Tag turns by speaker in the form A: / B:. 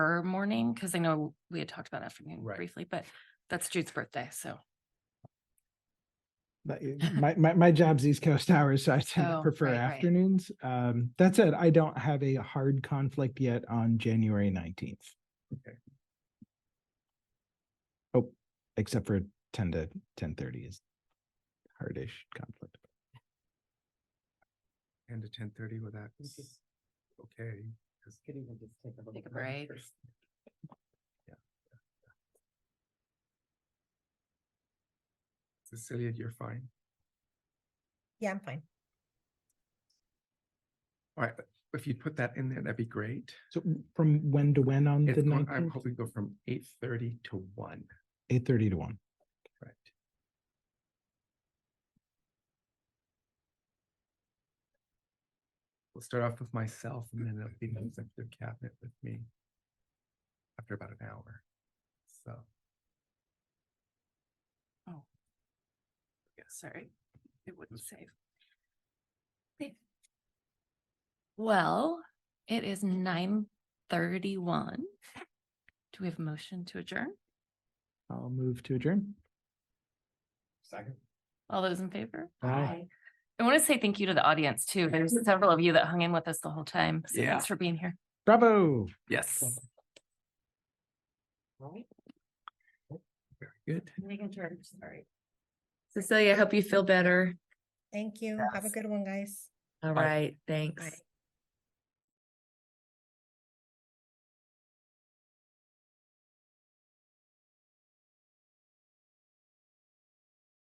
A: her morning, because I know we had talked about afternoon
B: Right.
A: briefly, but that's Jude's birthday, so.
C: But it- my, my, my job's East Coast hours, so I tend to
A: Oh,
C: prefer
A: right, right.
C: afternoons. Um, that said, I don't have a hard conflict yet on January nineteenth.
B: Okay.
C: Oh, except for ten to ten thirty is hardish conflict.
B: ten to ten thirty with that. Okay. Could even just take a little.
A: Take a break.
B: Yeah. Cecilia, you're fine.
D: Yeah, I'm fine.
B: All right, if you put that in there, that'd be great.
C: So from when to when on the
B: It's going- I'm
C: nineteenth?
B: hoping to go from eight thirty to one,
C: Eight thirty to one.
B: right? We'll start off with myself and then it'll be the executive cabinet with me after about an hour, so.
A: Sorry, it wouldn't save. Okay. Well, it is nine thirty-one. Do we have a motion to adjourn?
C: I'll move to adjourn.
B: Second.
A: All those in favor?
C: Aye. Aye.
A: I want to say thank you to the audience too. There's several of you that hung in with us the whole time. So
B: Yeah.
A: thanks for being here.
C: Bravo.
B: Yes. Very good.
E: Cecilia, I hope you feel better.
D: Thank you. Have a
E: Yes.
D: good one, guys.
E: All
B: Bye.
E: right, thanks.
D: Bye.